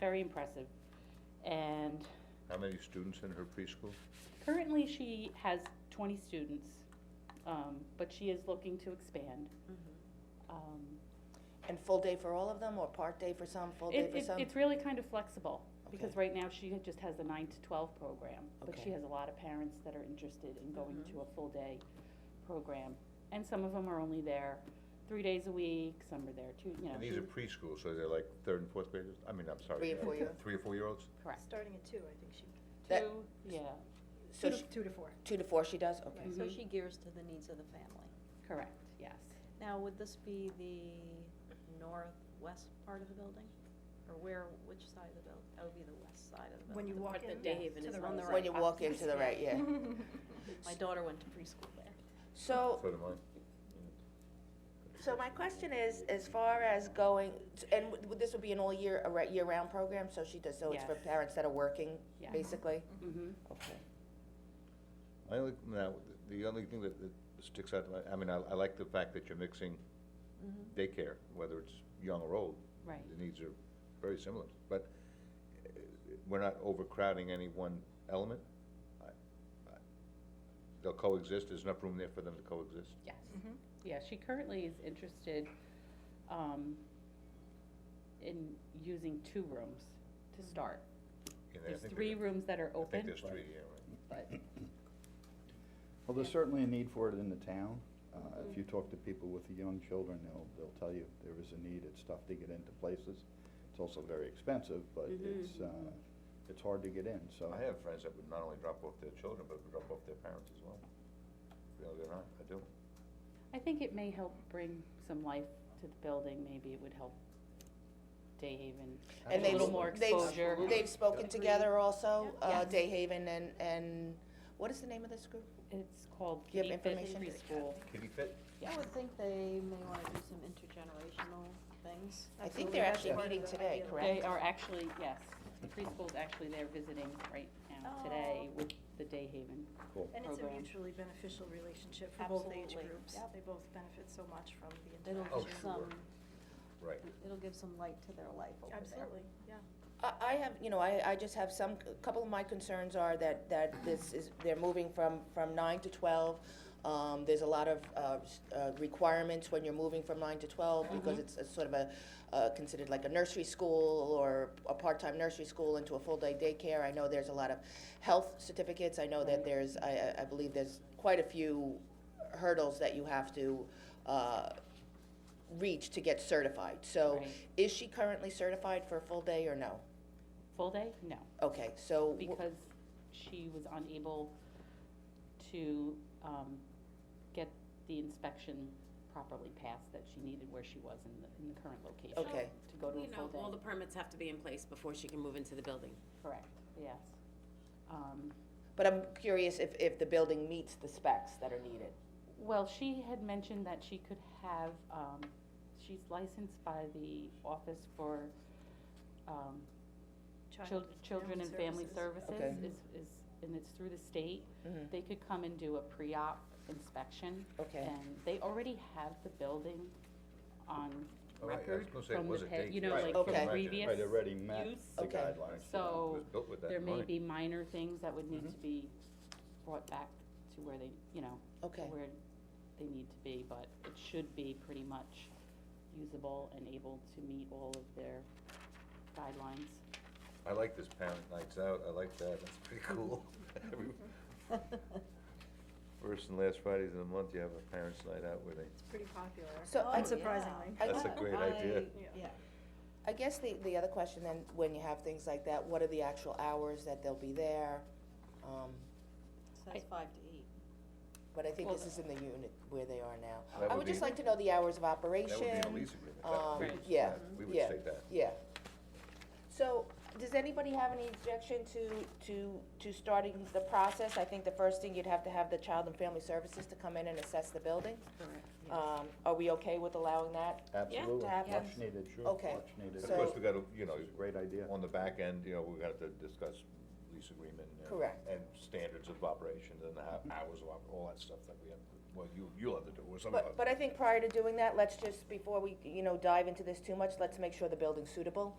very impressive. And How many students in her preschool? currently, she has twenty students, um, but she is looking to expand. Mm-hmm. Um, And full day for all of them, or part day for some, full day It, for it, some? it's really kind of flexible, because Okay. right now she had- just has a nine to twelve program, but she Okay. has a lot of parents that are interested in going Mhm. to a full day program. And some of them are only there three days a week, some are there two, you know. And these are two- preschool, so they're like third and fourth graders? I mean, I'm sorry. Three and uh, four-year. Three or four-year-olds? Correct. Starting at two, I think she, That- Two, yeah, So two to, she- two to four. Two to four she does, okay. Mhm. So she gears to the needs of the family. correct, yes. Now, would this be the northwest part of the building? Or where, which side of the building? That would be the west side of the When building. you walk part in, that Dave and to his the mom right. is When you walk into the right, yeah. My daughter went to preschool there. So, So do mine. Oh. so my question is, as far as going, and would- this would be an all-year, a re- year-round program, so she does, so it's for Yes. parents that are working, Yeah. basically? Mm-hmm. Okay. I only, now, the only thing that that sticks out, I mean, I, I like the fact that you're mixing Mm-hmm. daycare, whether it's young or old. Right. The needs are very similar, but uh, we're not overcrowding any one element. I- I- They'll coexist, there's enough room there for them to coexist. Yes, Mm-hmm. yeah, she currently is interested, um, in using two rooms to start. And Mm-hmm. I There's think three they're- rooms that are I think open, there's three, yeah, right. but, Well, there's certainly a need for it in the town. Uh, If you Mm-hmm. talk to people with the young children, they'll, they'll tell you there is a need. It's tough to get into places. It's also very expensive, but Mm-hmm. it's, uh, it's hard to get in, so. I have friends that would not only drop off their children, but would drop off their parents as well. Believe it or not, I do. I think it may help bring some life to the building, maybe it would help Dave and And a they've, little more they've, exposure. they've spoken together also, uh, Yes. Dayhaven and, and, what is the name of this group? It's called Do you Kitty have Fit information? Preschool. Kitty Fit? Yeah. I would think they may want to do some intergenerational things. I think they're actually meeting today, They correct? are actually, yes, the preschool's actually there visiting right now today Oh. with the Day Haven. Cool. And it's a Program. mutually beneficial relationship for both age Absolutely. groups. Yep. They both benefit so much from the It'll interaction. Oh, give sure. some, Right. it'll give some light to their life over there. Absolutely, yeah. I, I have, you know, I, I just have some, a couple of my concerns are that, that this is, they're moving from, from nine to twelve. Um, there's a lot of, uh, s- uh, requirements when you're moving from nine to twelve, because it's a sort of a, uh, considered like a nursery school or a part-time nursery school into a full-day daycare. I know there's a lot of health certificates, I know that there's, I, I, I believe there's quite a few hurdles that you have to, uh, reach to get certified. So, Right. is she currently certified for a full day or no? Full day? No, Okay, so, wh- because she was unable to, um, get the inspection properly passed that she needed where she was in the, in the current location. Okay. To go to a You know, all full the day, permits have to be in place before she can move into the building. correct, yes. Um, but I'm curious if, if the building meets the specs that are needed. Well, she had mentioned that she could have, um, she's licensed by the Office for, um, Child Chil- Children and Family Okay. Services is, is, and it's through the state. Mhm. They could come and do a pre-op inspection. Okay. And they already have the building on Oh, right, I was record gonna say, from the, was it pa- you know, daycare? like Right, from okay. previous Right, already met use. the Okay. guidelines. So, It was built with that There in may mind. be minor things that would need Mhm. to be brought back to where they, you know, Okay, where they need to be, but it should be pretty much usable and able to meet all of their guidelines. I like this parent nights out, I like that, that's pretty cool. Every- First and last Fridays of the month, you have a parents' night out where they, It's pretty popular. so I, Oh, yeah. Unsurprisingly. I- that's a great idea. I- Yeah. Yeah. I guess the, the other question then, when you have things like that, what are the actual hours that they'll be there? Um, Says five to eight. But I think Well, this is in the unit where they are now. That I would would just be- like to know the hours of That operation. would be in a lease agreement. That- um, we- Right. yeah, We would yeah. say that. Yeah. So, does anybody have any objection to, to, to starting the process? I think the first thing, you'd have to have the Child and Family Services to come in and assess the building. Um, are we okay with allowing that? Absolutely, have much needed, sure, much Okay. needed. Of So- course, we gotta, you know, It's a great idea. on the back end, you know, we're gonna have to discuss lease agreement. and- Correct. And standards of operations and how, hours of, op- all that stuff that we have, well, you, you'll have to do, or some of us. But, but I think prior to doing that, let's just, before we, you know, dive into this too much, let's make sure the building's suitable.